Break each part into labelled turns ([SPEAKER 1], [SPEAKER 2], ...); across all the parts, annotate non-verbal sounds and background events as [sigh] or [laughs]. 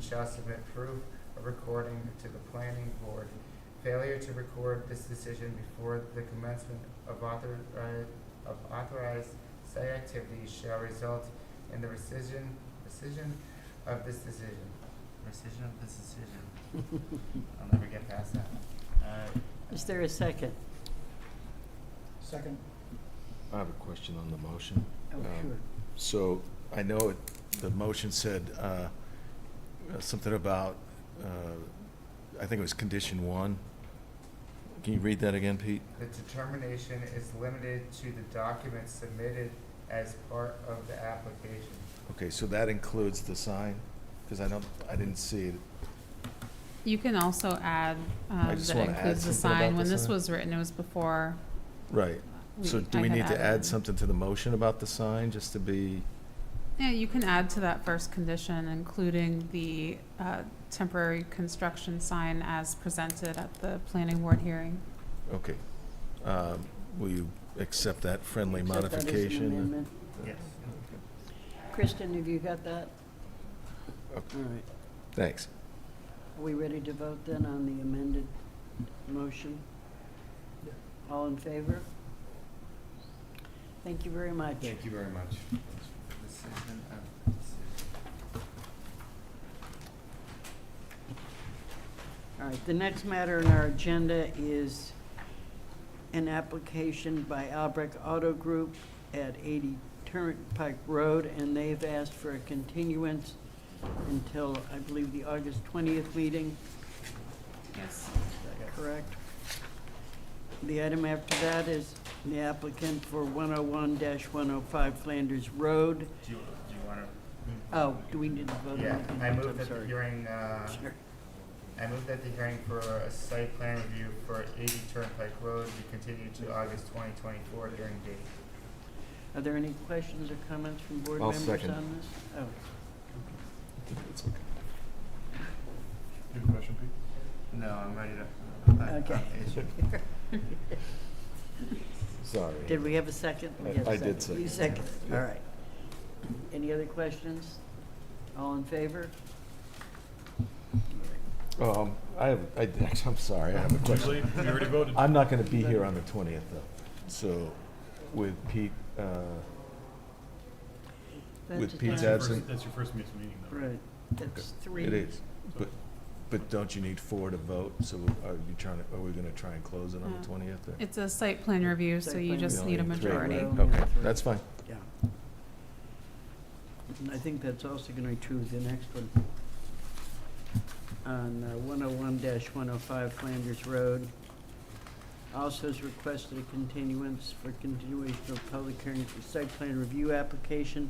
[SPEAKER 1] shall submit proof of recording to the planning board. Failure to record this decision before the commencement of authorized, of authorized site activities shall result in the rescission, rescission of this decision. Rescission of this decision. [laughs] I'll never get past that. Uh,
[SPEAKER 2] Is there a second?
[SPEAKER 3] Second.
[SPEAKER 4] I have a question on the motion.
[SPEAKER 3] Oh,
[SPEAKER 4] Um,
[SPEAKER 3] sure.
[SPEAKER 4] So I know it- the motion said uh, uh, something about, uh, I think it was condition one. Can you read that again, Pete?
[SPEAKER 1] The determination is limited to the documents submitted as part of the application.
[SPEAKER 4] Okay, so that includes the sign? Because I don't, I didn't see it.
[SPEAKER 5] You can also add, um,
[SPEAKER 4] just
[SPEAKER 5] that
[SPEAKER 4] wanna add
[SPEAKER 5] includes the
[SPEAKER 4] something about
[SPEAKER 5] sign. When
[SPEAKER 4] the
[SPEAKER 5] this
[SPEAKER 4] sign.
[SPEAKER 5] was written, it was before.
[SPEAKER 4] Right. So do
[SPEAKER 5] I
[SPEAKER 4] we
[SPEAKER 5] had
[SPEAKER 4] need to
[SPEAKER 5] added.
[SPEAKER 4] add something to the motion about the sign, just to be,
[SPEAKER 5] Yeah, you can add to that first condition, including the, uh, temporary construction sign as presented at the planning board hearing.
[SPEAKER 4] okay. Um, Will you accept that friendly
[SPEAKER 3] Except that is an
[SPEAKER 4] modification?
[SPEAKER 2] amendment.
[SPEAKER 1] Yes.
[SPEAKER 2] Kristen, have you got that? All
[SPEAKER 4] Okay.
[SPEAKER 2] right.
[SPEAKER 4] Thanks.
[SPEAKER 2] Are we ready to vote then on the amended motion?
[SPEAKER 3] Yeah.
[SPEAKER 2] All in favor? Thank you very much.
[SPEAKER 3] you very much.
[SPEAKER 1] Decision of decision.
[SPEAKER 2] All right, the next matter on our agenda is an application by Albrecht Auto Group at 80 Turnpike Road, and they've asked for a continuance until, I believe, the August 20th meeting, is
[SPEAKER 5] Yes.
[SPEAKER 2] that correct? The item after that is the applicant for 101-105 Flanders Road.
[SPEAKER 1] Do you, do you wanna?
[SPEAKER 2] Oh, do we need to vote on
[SPEAKER 1] Yeah,
[SPEAKER 2] it?
[SPEAKER 1] I move
[SPEAKER 2] I'm
[SPEAKER 1] that the
[SPEAKER 2] sorry.
[SPEAKER 1] hearing, uh,
[SPEAKER 2] Sure.
[SPEAKER 1] I move that the hearing for a site plan review for eighty Turnpike Road be continued to August twenty twenty-four hearing date.
[SPEAKER 2] Are there any questions or comments from board
[SPEAKER 4] I'll
[SPEAKER 2] members on this?
[SPEAKER 4] second.
[SPEAKER 2] Oh.
[SPEAKER 4] It's okay.
[SPEAKER 1] No, I'm ready to. I- I-
[SPEAKER 2] Okay.
[SPEAKER 1] it's-
[SPEAKER 4] Sorry.
[SPEAKER 2] Did we have a second?
[SPEAKER 4] I-
[SPEAKER 2] Yes,
[SPEAKER 4] I did
[SPEAKER 2] You
[SPEAKER 4] second.
[SPEAKER 2] second,
[SPEAKER 4] Yeah.
[SPEAKER 2] all right. Any other questions? All in favor?
[SPEAKER 4] Um, I have, I, [laughs] actually, I'm sorry, I have a question.
[SPEAKER 6] We already voted.
[SPEAKER 4] I'm not gonna be here on the twentieth though, so with Pete, uh,
[SPEAKER 2] That's
[SPEAKER 4] With
[SPEAKER 2] just
[SPEAKER 4] Pete's
[SPEAKER 2] not-
[SPEAKER 6] your
[SPEAKER 4] absent.
[SPEAKER 6] first- That's your first meeting, meeting, though.
[SPEAKER 2] Right, that's three.
[SPEAKER 4] it is. But, but don't you need four to vote? So are you trying to, are we gonna try and close it on
[SPEAKER 5] No.
[SPEAKER 4] the twentieth or?
[SPEAKER 5] It's a site plan review, so
[SPEAKER 2] Site
[SPEAKER 5] you
[SPEAKER 2] plan
[SPEAKER 4] We
[SPEAKER 5] just
[SPEAKER 4] only
[SPEAKER 5] need a
[SPEAKER 4] three, right?
[SPEAKER 5] majority.
[SPEAKER 2] Only
[SPEAKER 4] Okay,
[SPEAKER 2] three.
[SPEAKER 4] that's fine.
[SPEAKER 2] Yeah. And I think that's also gonna be true of the next one. On one oh one one oh five Flanders Road. Also has requested a continuance for continuation of public hearing for site plan review application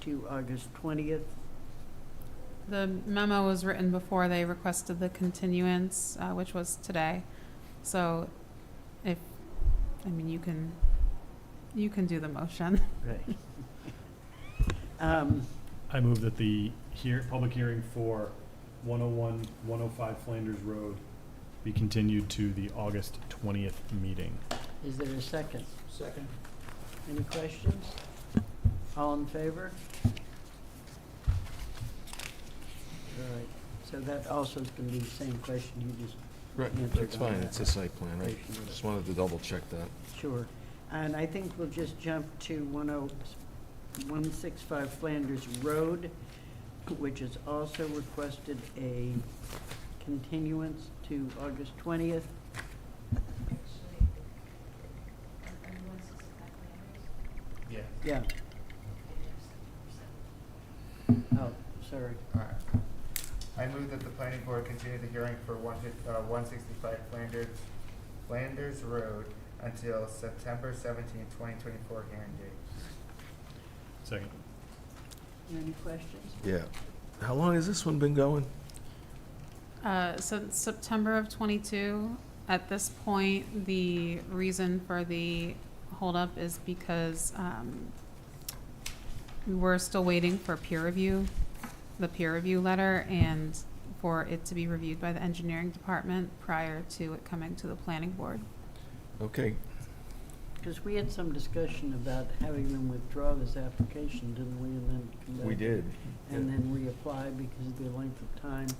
[SPEAKER 2] to August twentieth.
[SPEAKER 5] The memo was written before they requested the continuance, uh, which was today. So if, I mean, you can, you can do the motion.
[SPEAKER 2] Right. [laughs] Um,
[SPEAKER 6] I move that the hear, public hearing for 101, 105 Flanders Road be continued to the August 20th meeting.
[SPEAKER 2] is there a second?
[SPEAKER 3] Second.
[SPEAKER 2] Any questions? All in favor? All right, so that also is gonna be the same question you just,
[SPEAKER 4] Right,
[SPEAKER 2] Yeah,
[SPEAKER 4] that's
[SPEAKER 2] it's
[SPEAKER 4] fine,
[SPEAKER 2] on
[SPEAKER 4] it's a
[SPEAKER 2] that.
[SPEAKER 4] site plan, right? Just wanted to double check that.
[SPEAKER 2] sure. And I think we'll just jump to one oh, one six five Flanders Road, which has also requested a continuance to August twentieth.
[SPEAKER 1] Yeah,
[SPEAKER 2] Yeah. Oh, sorry.
[SPEAKER 1] alright. I move that the planning board continue the hearing for one fif- uh, one sixty-five Flanders, Flanders Road until September seventeenth, twenty twenty-four hearing date.
[SPEAKER 6] Second.
[SPEAKER 2] Any questions?
[SPEAKER 4] Yeah. How long has this one been going?
[SPEAKER 5] Uh, since September of twenty-two, at this point, the reason for the holdup is because, um, we were still waiting for peer review, the peer review letter, and for it to be reviewed by the engineering department prior to it coming to the planning board.
[SPEAKER 4] Okay.
[SPEAKER 2] Because we had some discussion about having them withdraw this application, didn't we, and then come back?
[SPEAKER 4] We did.
[SPEAKER 2] And then reapply because of the length of time.